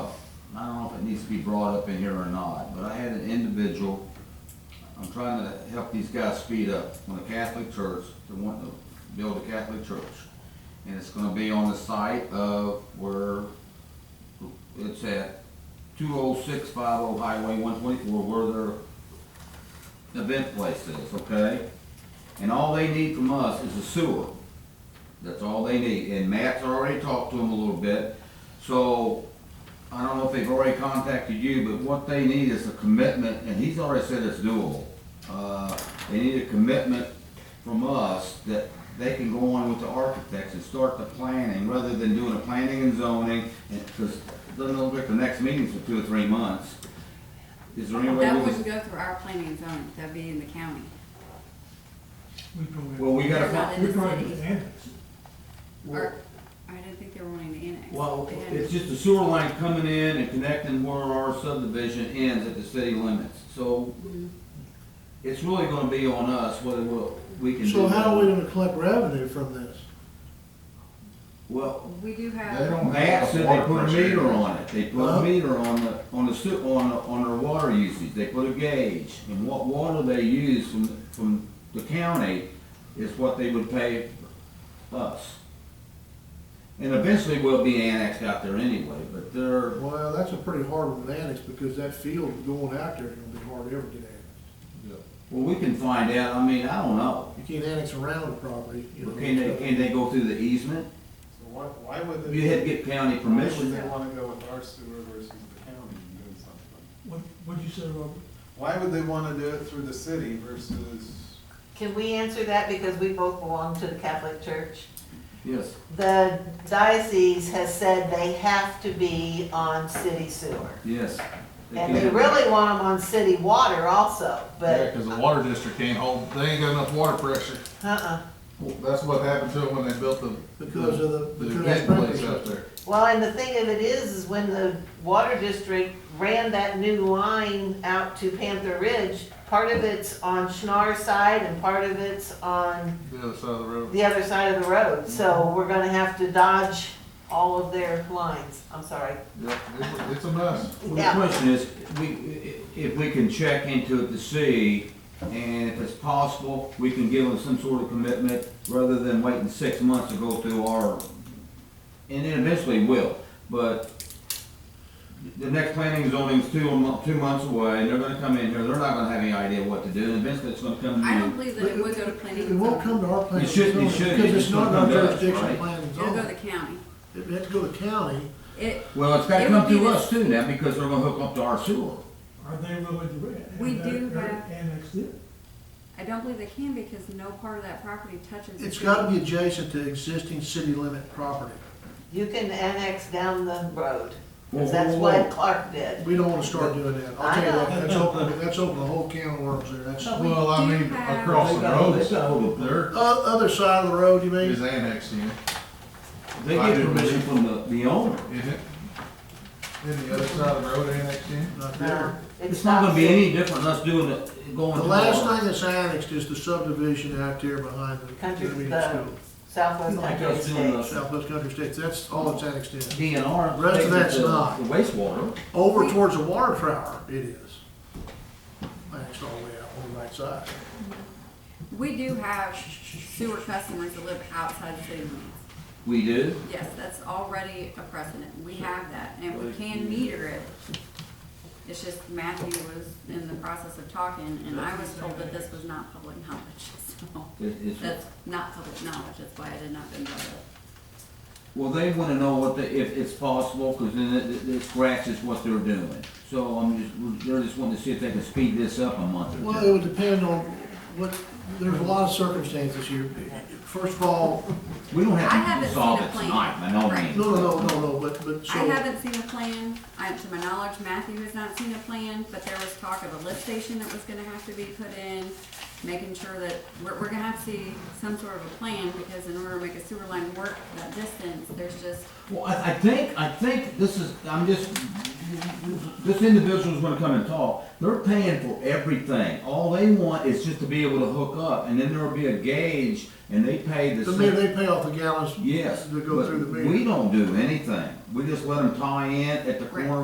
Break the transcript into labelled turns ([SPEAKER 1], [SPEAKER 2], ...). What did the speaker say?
[SPEAKER 1] needs to be brought up in here or not, but I had an individual, I'm trying to help these guys speed up, on a Catholic church, they're wanting to build a Catholic church. And it's gonna be on the site of where, it's at two oh six five oh Highway one twenty-four, where their event place is, okay? And all they need from us is a sewer. That's all they need, and Matt's already talked to them a little bit. So, I don't know if they've already contacted you, but what they need is a commitment, and he's already said it's doable. Uh, They need a commitment from us that they can go on with the architects and start the planning, rather than doing a planning and zoning, and, because it doesn't look like the next meeting's for two or three months. Is there any way?
[SPEAKER 2] That
[SPEAKER 1] we can-
[SPEAKER 2] wouldn't go through our planning and zoning, that'd be in the county.
[SPEAKER 3] We probably.
[SPEAKER 1] Well, we gotta,
[SPEAKER 2] They're not
[SPEAKER 1] fi-
[SPEAKER 2] in
[SPEAKER 3] We're
[SPEAKER 2] the
[SPEAKER 3] going
[SPEAKER 2] city.
[SPEAKER 3] to annex.
[SPEAKER 2] Or, I didn't think they were wanting to annex.
[SPEAKER 1] Well,
[SPEAKER 2] They hadn't.
[SPEAKER 1] it's just a sewer line coming in and connecting where our subdivision ends at the city limits. So it's really gonna be on us whether we'll, we can do.
[SPEAKER 4] So how are we
[SPEAKER 1] that.
[SPEAKER 4] gonna collect revenue from this?
[SPEAKER 1] Well,
[SPEAKER 2] We do
[SPEAKER 5] They
[SPEAKER 2] have,
[SPEAKER 5] don't-
[SPEAKER 1] Matt said they put a meter on it. They put a
[SPEAKER 4] Huh?
[SPEAKER 1] meter on the, on the sewer, on, on their water usage. They put a gauge. And what water they use from, from the county is what they would pay us. And eventually we'll be annexed out there anyway, but they're,
[SPEAKER 4] Well, that's a pretty hard one to annex, because that field going out there is gonna be hard to ever get annexed.
[SPEAKER 1] Well, we can find out, I mean, I don't know.
[SPEAKER 4] You can't annex around the property, you know.
[SPEAKER 1] Can they, can they go through the easement?
[SPEAKER 5] So why, why would they?
[SPEAKER 1] You had to get county
[SPEAKER 5] Why would they
[SPEAKER 1] permission.
[SPEAKER 5] wanna go with our sewer versus the county and doing something?
[SPEAKER 3] What, what'd you say, Robert?
[SPEAKER 5] Why would they wanna do it through the city versus,
[SPEAKER 6] Can we answer that because we both belong to the Catholic Church?
[SPEAKER 1] Yes.
[SPEAKER 6] The diocese has said they have to be on city sewer.
[SPEAKER 1] Yes.
[SPEAKER 6] And they
[SPEAKER 1] can.
[SPEAKER 6] really want them on city water also,
[SPEAKER 7] Yeah,
[SPEAKER 6] but,
[SPEAKER 7] because the water district can't hold, they ain't got enough water pressure.
[SPEAKER 6] uh-uh.
[SPEAKER 7] Well, That's what happened to them when they built the.
[SPEAKER 4] Because of the-
[SPEAKER 7] The
[SPEAKER 4] because of
[SPEAKER 7] event place
[SPEAKER 4] sprinklers.
[SPEAKER 7] up there.
[SPEAKER 6] Well, and the thing of it is, is when the water district ran that new line out to Panther Ridge, part of it's on Schnarr side and part of it's on
[SPEAKER 7] The other side of the road.
[SPEAKER 6] the other side of the road. So we're gonna have to dodge all of their lines. I'm sorry.
[SPEAKER 7] Yep, it's, it's a mess.
[SPEAKER 1] Well,
[SPEAKER 6] Yeah.
[SPEAKER 1] The question is, we, i- if we can check into it to see, and if it's possible, we can give them some sort of commitment rather than waiting six months to go through our, and then eventually will, but the next planning and zoning's two, a mo- two months away, and they're gonna come in here, they're not gonna have any idea what to do, and eventually it's gonna come to you.
[SPEAKER 2] I don't believe that it would go to planning
[SPEAKER 4] It
[SPEAKER 2] and
[SPEAKER 4] won't
[SPEAKER 2] zoning.
[SPEAKER 4] come to our plan.
[SPEAKER 1] It shouldn't, it shouldn't.
[SPEAKER 4] Because
[SPEAKER 1] It's
[SPEAKER 4] it's not in
[SPEAKER 1] not
[SPEAKER 4] our
[SPEAKER 1] done,
[SPEAKER 4] jurisdiction
[SPEAKER 1] right?
[SPEAKER 4] plan and
[SPEAKER 2] It'll go to
[SPEAKER 4] zoning.
[SPEAKER 2] the county.
[SPEAKER 4] It has to go to county,
[SPEAKER 2] It,
[SPEAKER 1] Well, it's gotta
[SPEAKER 2] It would
[SPEAKER 1] come
[SPEAKER 2] be
[SPEAKER 1] through
[SPEAKER 2] the-
[SPEAKER 1] us too now, because they're gonna hook up to our sewer.
[SPEAKER 3] Are they willing to re-
[SPEAKER 2] We
[SPEAKER 3] annex-
[SPEAKER 2] do
[SPEAKER 3] or
[SPEAKER 2] have-
[SPEAKER 3] Annex it?
[SPEAKER 2] I don't believe they can because no part of that property touches. the
[SPEAKER 4] it's
[SPEAKER 2] city.
[SPEAKER 4] gotta be adjacent to existing city limit property.
[SPEAKER 6] You can annex down the road,
[SPEAKER 1] Whoa, whoa,
[SPEAKER 6] because that's
[SPEAKER 1] whoa.
[SPEAKER 6] what Clark did.
[SPEAKER 4] We don't wanna start doing that, I'll tell you what,
[SPEAKER 6] I
[SPEAKER 4] that's open, that's open a whole can of worms there, that's. uh,
[SPEAKER 2] But
[SPEAKER 4] O-
[SPEAKER 2] we
[SPEAKER 7] Well, I
[SPEAKER 2] do
[SPEAKER 7] mean,
[SPEAKER 2] have-
[SPEAKER 7] across the
[SPEAKER 1] They
[SPEAKER 7] road,
[SPEAKER 1] got hold of
[SPEAKER 7] there
[SPEAKER 4] Other side of the road, you
[SPEAKER 7] is
[SPEAKER 4] mean?
[SPEAKER 7] annexed in,
[SPEAKER 1] They
[SPEAKER 7] I
[SPEAKER 1] get
[SPEAKER 7] do.
[SPEAKER 1] permission from the, the owner.
[SPEAKER 7] isn't it? Isn't the other side of the road annexed in?
[SPEAKER 4] Not
[SPEAKER 6] No,
[SPEAKER 4] there.
[SPEAKER 1] It's not gonna be any different than us doing it, going
[SPEAKER 4] The
[SPEAKER 1] to.
[SPEAKER 4] last
[SPEAKER 1] our-
[SPEAKER 4] thing that's annexed is the subdivision out there behind the
[SPEAKER 6] Country
[SPEAKER 4] community
[SPEAKER 6] Club.
[SPEAKER 4] school,
[SPEAKER 6] Southwest
[SPEAKER 1] Like
[SPEAKER 6] Country
[SPEAKER 1] us doing
[SPEAKER 6] Estates.
[SPEAKER 1] the
[SPEAKER 4] Southwest Country States, that's all it's annexed in.
[SPEAKER 1] DNR.
[SPEAKER 4] Rest of
[SPEAKER 1] takes it
[SPEAKER 4] that's
[SPEAKER 1] to
[SPEAKER 4] not.
[SPEAKER 1] The wastewater.
[SPEAKER 4] Over towards the water tower, it is. That's all the way out on the right side.
[SPEAKER 2] We do have sewer customers that live outside the city limits.
[SPEAKER 1] We do.
[SPEAKER 2] Yes, that's already a precedent. We have that and we can meter it. It's just Matthew was in the process of talking and I was told that this was not public knowledge, so.
[SPEAKER 1] It- it's,
[SPEAKER 2] That's not public knowledge, that's why I did not bring that up.
[SPEAKER 1] well, they wanna know what the, if it's possible, cause then it, it- it scratches what they're doing. So I'm just, they're just wanting to see if they can speed this up a month or
[SPEAKER 4] Well, it
[SPEAKER 1] two.
[SPEAKER 4] would depend on what, there's a lot of circumstances here. First of all,
[SPEAKER 1] We don't
[SPEAKER 2] I
[SPEAKER 1] have
[SPEAKER 2] haven't
[SPEAKER 1] to
[SPEAKER 2] seen
[SPEAKER 1] solve
[SPEAKER 2] a
[SPEAKER 1] it
[SPEAKER 2] plan.
[SPEAKER 1] tonight, by no
[SPEAKER 2] Right.
[SPEAKER 1] means.
[SPEAKER 4] no, no, no, no, no, but, but
[SPEAKER 2] I
[SPEAKER 4] so,
[SPEAKER 2] haven't seen a plan, I, to my knowledge, Matthew has not seen a plan, but there was talk of a lift station that was gonna have to be put in, making sure that, we're, we're gonna have to see some sort of a plan, because in order to make a sewer line work that distance, there's just,
[SPEAKER 1] Well, I, I think, I think this is, I'm just, this individual's gonna come and talk, they're paying for everything. All they want is just to be able to hook up, and then there'll be a gauge, and they pay the
[SPEAKER 4] so maybe
[SPEAKER 1] same.
[SPEAKER 4] they pay off the gallons
[SPEAKER 1] Yes,
[SPEAKER 4] to go through the
[SPEAKER 1] but
[SPEAKER 4] meter.
[SPEAKER 1] we don't do anything, we just let them tie in at the corner